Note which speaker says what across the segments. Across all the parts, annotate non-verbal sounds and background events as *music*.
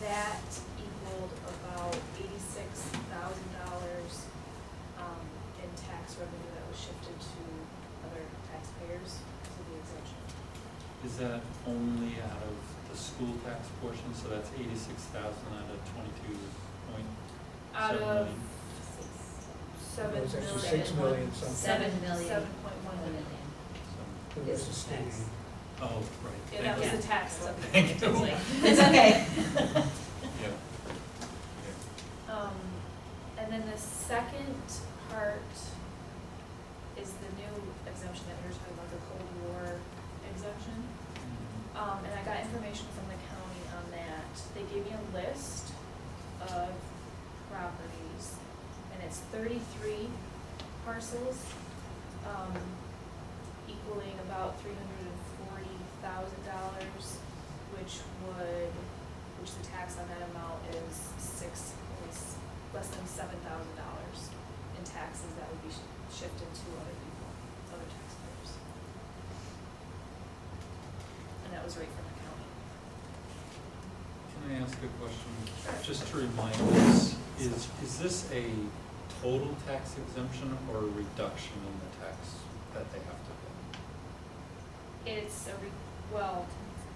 Speaker 1: that equaled about eighty-six thousand dollars, um, in tax revenue that was shifted to other taxpayers through the exemption.
Speaker 2: Is that only out of the school tax portion, so that's eighty-six thousand out of twenty-two point
Speaker 1: Out
Speaker 2: seven
Speaker 1: of seven
Speaker 2: million?
Speaker 3: It was
Speaker 1: million.
Speaker 3: actually six million something.
Speaker 4: Seven million.
Speaker 1: Seven point one million.
Speaker 2: So-
Speaker 3: It was a state aid.
Speaker 2: Oh, right.
Speaker 1: Yeah, that was
Speaker 2: Thank
Speaker 1: the tax levy.
Speaker 2: Thank you.
Speaker 1: Totally.
Speaker 4: *laughs* It's okay.
Speaker 2: you. Yeah. Yeah.
Speaker 1: Um, and then the second part is the new exemption that you're talking about, the Cold War exemption. Um, and I got information from the county on that. They gave me a list of properties, and it's thirty-three parcels, um, equaling about three hundred and forty thousand dollars, which would, which the tax on that amount is six, is less than seven thousand dollars in taxes that would be sh- shifted to other people, other taxpayers. And that was right from the county.
Speaker 2: Can I ask a question? Just to remind us, is, is this a total tax exemption or a reduction in the tax that they have to pay?
Speaker 1: It's a, re- well,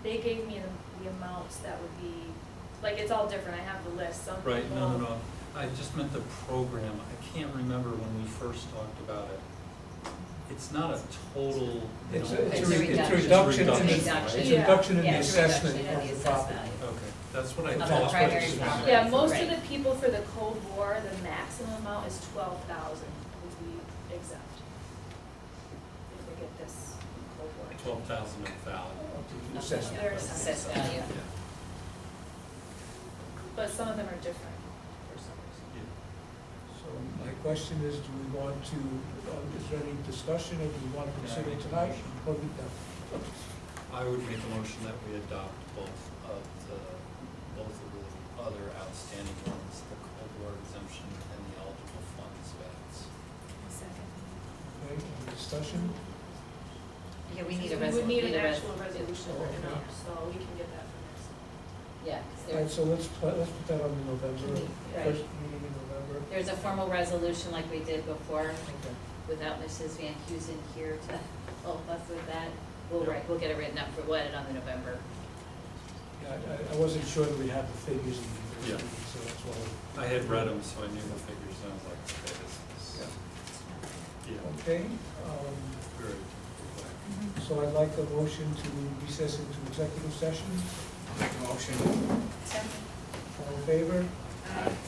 Speaker 1: they gave me the, the amounts that would be, like, it's all different, I have the list, some people.
Speaker 2: Right, no, no, no, I just meant the program, I can't remember when we first talked about it. It's not a total, they
Speaker 3: It's
Speaker 2: don't
Speaker 3: a,
Speaker 2: pay.
Speaker 3: it's
Speaker 4: It's a
Speaker 3: a it's a
Speaker 4: reduction.
Speaker 3: reduction in the,
Speaker 2: It's a
Speaker 3: it's
Speaker 2: reduction.
Speaker 3: a reduction in
Speaker 4: Yeah.
Speaker 3: the
Speaker 4: Yeah, it's a reduction
Speaker 3: assessment
Speaker 4: in the
Speaker 3: of the
Speaker 4: assessed
Speaker 3: property.
Speaker 4: value.
Speaker 2: Okay, that's what I
Speaker 4: Of the
Speaker 2: thought. but
Speaker 4: primary
Speaker 2: it's-
Speaker 4: property.
Speaker 1: Yeah, most of
Speaker 4: Right.
Speaker 1: the people for the Cold War, the maximum amount is twelve thousand would be exempt. If they get this Cold War.
Speaker 2: Twelve thousand of value.
Speaker 3: of the Assessment.
Speaker 1: There's
Speaker 4: Assessed value.
Speaker 2: Yeah,
Speaker 1: But some of them are different for some reason.
Speaker 2: yeah.
Speaker 3: So my question is, do we want to, uh, is there any discussion, or do we want to consider it tonight? Or we don't?
Speaker 2: I would make a motion that we adopt both of the, both of the other outstanding ones, the Cold War exemption and the eligible funds balance.
Speaker 1: Second.
Speaker 3: Okay, any discussion?
Speaker 4: Yeah, we need a
Speaker 1: We would
Speaker 4: resolution.
Speaker 1: need an actual resolution
Speaker 3: Oh,
Speaker 1: written
Speaker 3: okay.
Speaker 1: up, so we can get that from next.
Speaker 4: Yeah,
Speaker 3: All right,
Speaker 4: because
Speaker 3: so let's, put- let's put that on the November,
Speaker 4: Right.
Speaker 3: first meeting in November.
Speaker 4: there's a formal resolution like we did before
Speaker 3: Okay.
Speaker 4: without Mrs. Van Huzen here to help us with that. We'll,
Speaker 2: Yeah.
Speaker 4: write- we'll get it written up for, we'll edit on the November.
Speaker 3: Yeah, I- I, I wasn't sure that we had the figures in the
Speaker 2: Yeah.
Speaker 3: meeting, so that's why.
Speaker 2: I had read them, so I knew the figures, and I was like, okay, this is, yeah,
Speaker 3: Okay, um,
Speaker 2: very.
Speaker 3: so I'd like a motion to recess into executive session.
Speaker 5: Make a motion.
Speaker 1: Second.
Speaker 3: All in favor?
Speaker 1: Aye.